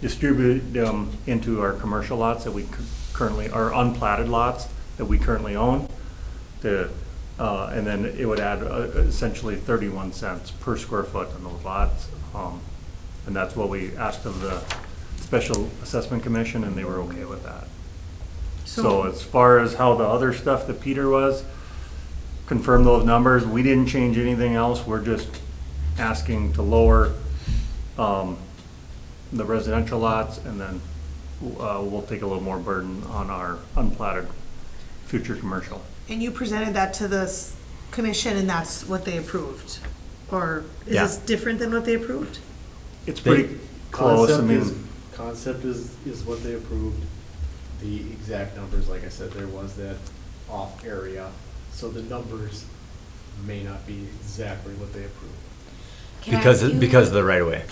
distribute them into our commercial lots that we cu- currently, our unplatted lots that we currently own. The, uh, and then it would add uh, essentially thirty-one cents per square foot on those lots. Um, and that's what we asked of the Special Assessment Commission, and they were okay with that. So as far as how the other stuff that Peter was, confirm those numbers, we didn't change anything else, we're just asking to lower, um, the residential lots, and then, uh, we'll take a little more burden on our unplatted future commercial. And you presented that to the s- commission and that's what they approved? Or is Yeah. this different than what they approved? It's pretty close, I Concept mean. is- Concept is, is what they approved. The exact numbers, like I said, there was that off area, so the numbers may not be exactly what they approved. Can I Because, ask you- because of the right of way.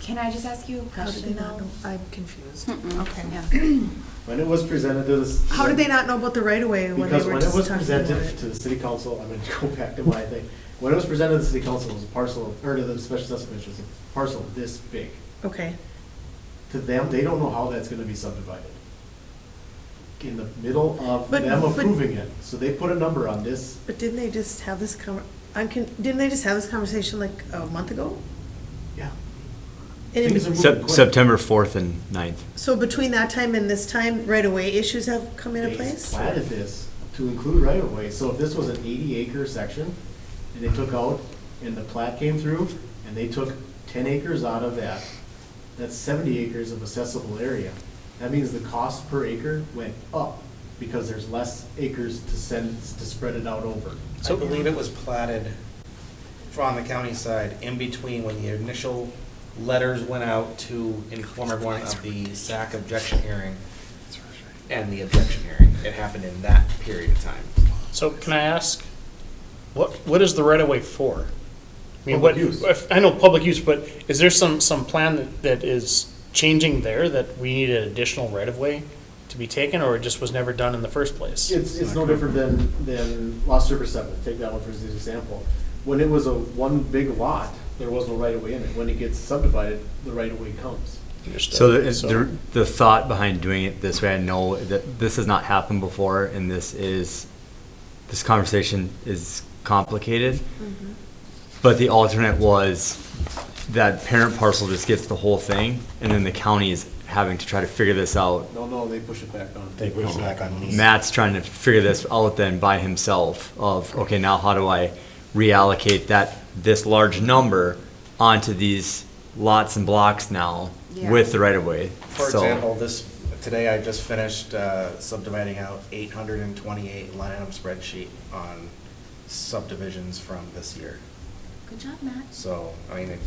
Can I just ask you a How did they question not know? though? I'm confused. Mm, Mm-mm. Okay. Yeah. When it was presented to the. How did they not know about the right of way when they Because were when it just was talking about presented to it? the city council, I'm gonna go back to my thing. When it was presented to the city council, it was a parcel, or to the special assessment, commission, it was a parcel this big. Okay, To them, they don't know how that's gonna be subdivided. In the middle of But- them but- approving it, so they put a number on this but didn't they just have this con, I'm con, didn't they just have this conversation like a month ago? Yeah. And Things in- are- Sep- September 4th and 9th. So between that time and this time, right of way issues have come into They place? Platted this to include right of way, so if this was an eighty acre section, and they took out, and the plat came through, and they took ten acres out of that, that's seventy acres of accessible area. That means the cost per acre went up, because there's less acres to send, to spread it out over. I believe it was platted from the county side in between when the initial letters went out to inform everyone of the SAC objection hearing and the objection hearing. It happened in that period of time. So can I ask, what, what is the right of way for? I mean, Public what, use. if- I know public use, but is there some, some plan that, that is changing there that we need an additional right of way to be taken, or it just was never done in the first place? It's, it's no different than, than Lost River Seven, take that one for an example. When it was a one big lot, there was no right of way in it, when it gets subdivided, the right of way comes. Understood. So the, the, the thought behind doing it this way, I know that this has not happened before and this is, this conversation is complicated. Mm-hmm. But the alternate was that parent parcel just gets the whole thing and then the county is having to try to figure this out. No, no, they push it back on. They push it back on me. Matt's trying to figure this out then by himself of, okay, now how do I reallocate that, this large number onto these lots and blocks now with the right of way? For example, this, today I just finished uh, subdividing out eight hundred and twenty-eight line item spreadsheet on subdivisions from this year. Good job, Matt. So, I mean, it's,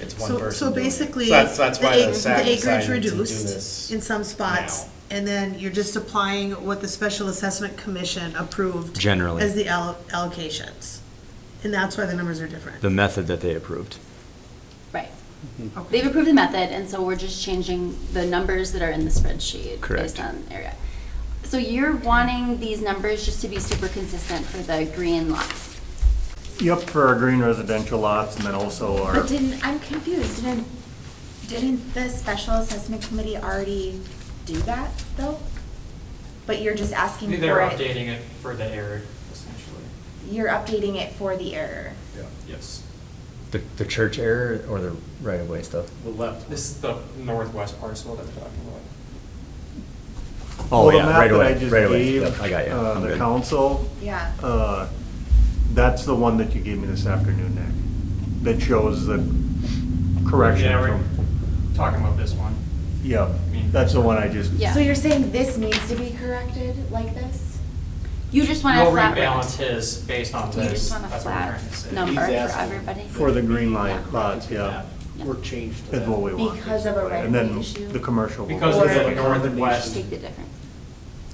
it's one So, person. so doing it. basically, So that's, that's the why ac- the the SAC acreage decided to do this reduced in some spots, now. and then you're just applying what the Special Assessment Commission approved. Generally. As the al- allocations, and that's why the numbers are different. The method that they approved. Right. Okay. They've approved the method, and so we're just changing the numbers that are in the spreadsheet. Correct. Based on area. So you're wanting these numbers just to be super consistent for the green lots. Yep, for our green residential lots, and then also our. But didn't, I'm confused, didn't, didn't the special assessment committee already do that, though? But you're just asking for it? They're updating it for the error, essentially. You're updating it for the error. Yes. The, the church error or the right of way stuff? The left. This is the northwest parcel that we're talking about. Well, Oh, the yeah, map right that away, I just right away. gave, Yep, I got you. uh, I'm The good. council. Yeah. uh, That's the one that you gave me this afternoon, Nick, that shows the correction Yeah, we're from, talking about this one. yep, that's the one I just. Yeah. So you're saying this needs to be corrected like this? You just want a We'll flat rate. rebalance his based on You this. just want a That's what we're flat trying to say. number for He's asking everybody. For the green line lots, yeah, Were changed to is what that. we want. Because of a basically. right-of-way And issue? then the commercial. will Because go of Or- the northwest, Take the difference.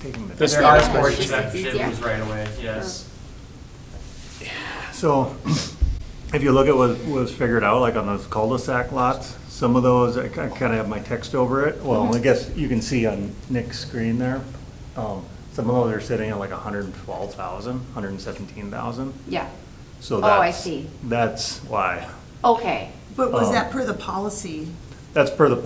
taking the- This- there are Yeah, it's more just- it's exceptions easier. right away, yes. So if you look at what was figured out, like on those cul-de-sac lots, some of those, I kind of have my text over it. Well, I guess you can see on Nick's screen there, um, some of those are sitting at like 112,000, 117,000. Yeah. So Oh, I that's- see. That's why. Okay. But was Um, Oh. that per the policy? That's per the